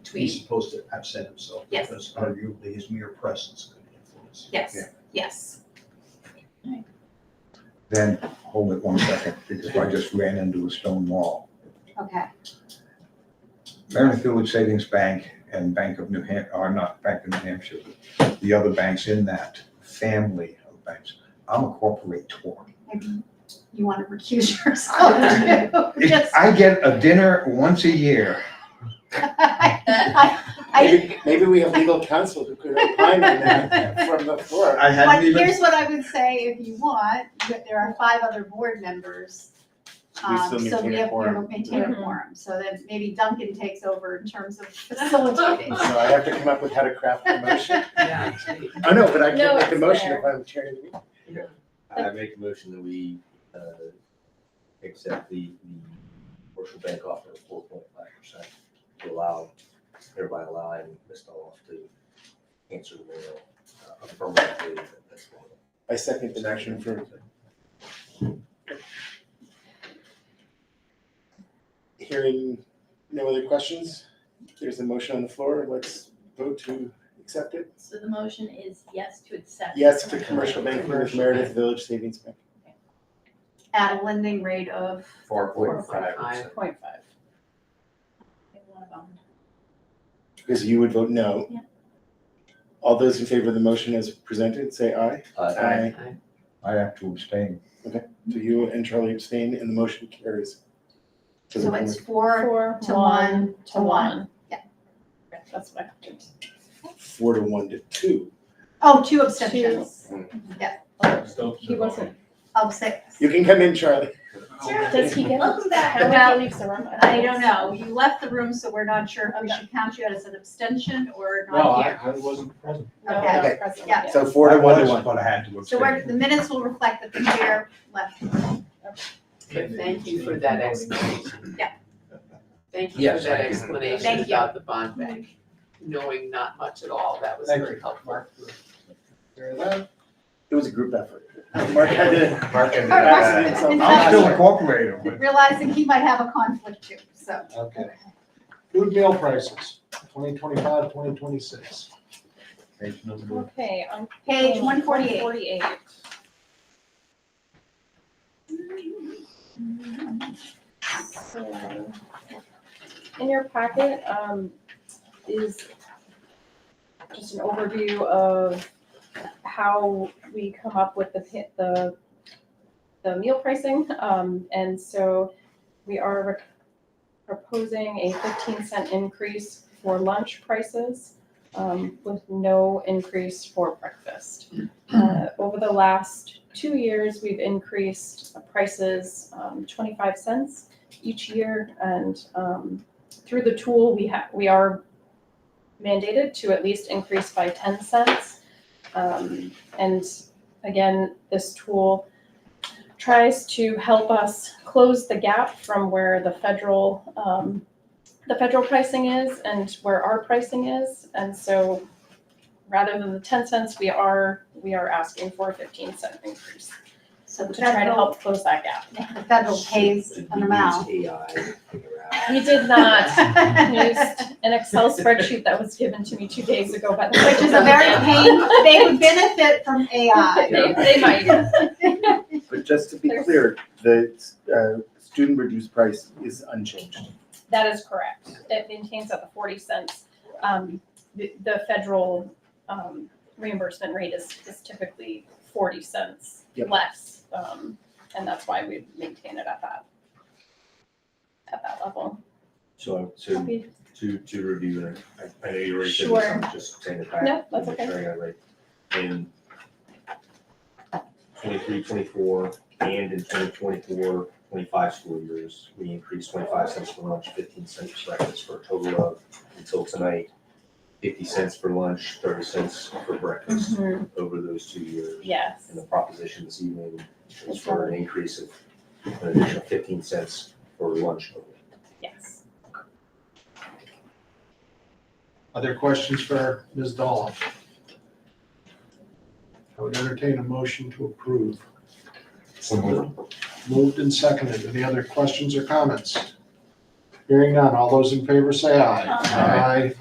He's between, supposed to absent himself Yes. because arguably his mere presence could influence. yes, Yeah. yes. Then, hold it one second, because I just ran into a stone wall. Okay, Meredith Village Savings Bank and Bank of New Hampshire, or not Bank of New Hampshire, but the other banks in that family of banks. I'm a corporator. maybe you want to recuse yourself too. If Just- I get a dinner once a year, I- I- I- Maybe, maybe we have legal counsel who could opine on that from the floor. I But hadn't even, here's what I would say, if you want, that there are five other board members. We um, still So maintain we a have, quorum. we maintain a Mhm. quorum, so that maybe Duncan takes over in terms of facilitating. So I have to come up with how to craft the motion. Yeah. Oh, no, but I No, can make the it's motion there. if I'm chairing the meeting. I make a motion that we, uh, accept the, the commercial bank offer of four point five percent to allow, thereby allowing Ms. Dolph to answer the mail uh, affirmatively at this point. I second the motion for. Hearing no other questions, there's a motion on the floor, let's vote to accept it. So the motion is yes to accept. Yes to commercial banking with Meredith Village Savings Bank. At a lending rate of, Four point five 4.5. percent. Point five. Because you would vote no. Yeah. All those in favor of the motion as presented, say aye. Uh, I have to abstain. Do you and Charlie abstain and the motion carries? To the so it's board. four, Four to one, to one. That's what I did. Four to one to two. Oh, two abstentions He wasn't. of six. You can come in, Charlie. Oh, Does he get? Welcome back. How many leaves the room? I don't know, you left the room, so we're not sure if we should count you as an abstention or not here. I wasn't present. Okay, Okay. President, Yeah. So four I to one to was, one. But I had to abstain. so we're, the minutes will reflect that the chair left. the room. Thank you for that explanation. Yeah. Thank you for Yes, that thank you. explanation Thank you. about the bond bank, knowing not much at all, that was Thank very helpful. Very well. It was a group effort. Mark had to. Mark and. Our Yeah. president, I'm in I'm fact, still a corporator, but Realizing he might have a conflict too, so. Okay. Food meal prices, 2025, 2026. page number Okay, on. Page one forty-eight. Forty-eight. So, In your packet, um, is just an overview of how we come up with the, pi- the, the meal pricing. Um, and so we are re- proposing a fifteen cent increase for lunch prices um, with no increase for breakfast. Uh, over the last two years, we've increased prices um, 25 cents each year, and um, through the tool, we have we are mandated to at least increase by 10 cents. Um, and again, this tool tries to help us close the gap from where the federal um, the federal pricing is and where our pricing is. And so rather than the ten cents, we are, we are asking for a fifteen cent increase So the to try to federal, help close that gap. the federal pays Did an we amount. use AI to figure out? We did not use an Excel spreadsheet that was given to me two days ago, but. Which is a very pain, they would benefit from AI. They, they might. But just to be clear, the uh, student reduced price is unchanged. That is correct. It maintains at the forty cents. Um, the, the federal, um, reimbursement rate is, is typically forty cents Yep. less. Um, and that's why we maintain it at that, at that level. So, so to, to review, and I, I know you already said Sure. this, I'm just saying it back. No, that's to make okay. sure I got it right. In twenty-three, twenty-four, and in 2024, 25 school years, we increased twenty-five cents for lunch, fifteen cents for breakfast, for a total of, until tonight, fifty cents for lunch, thirty cents for breakfast Mm-hmm. over those two years. Yes, And the proposition this evening is It's for an increase of an additional fifteen cents for lunch only. yes. Other questions for Ms. Dolph? I would entertain a motion to approve. Moved and seconded. Any other questions or comments? Hearing none. All those in favor say aye. Aye. Aye.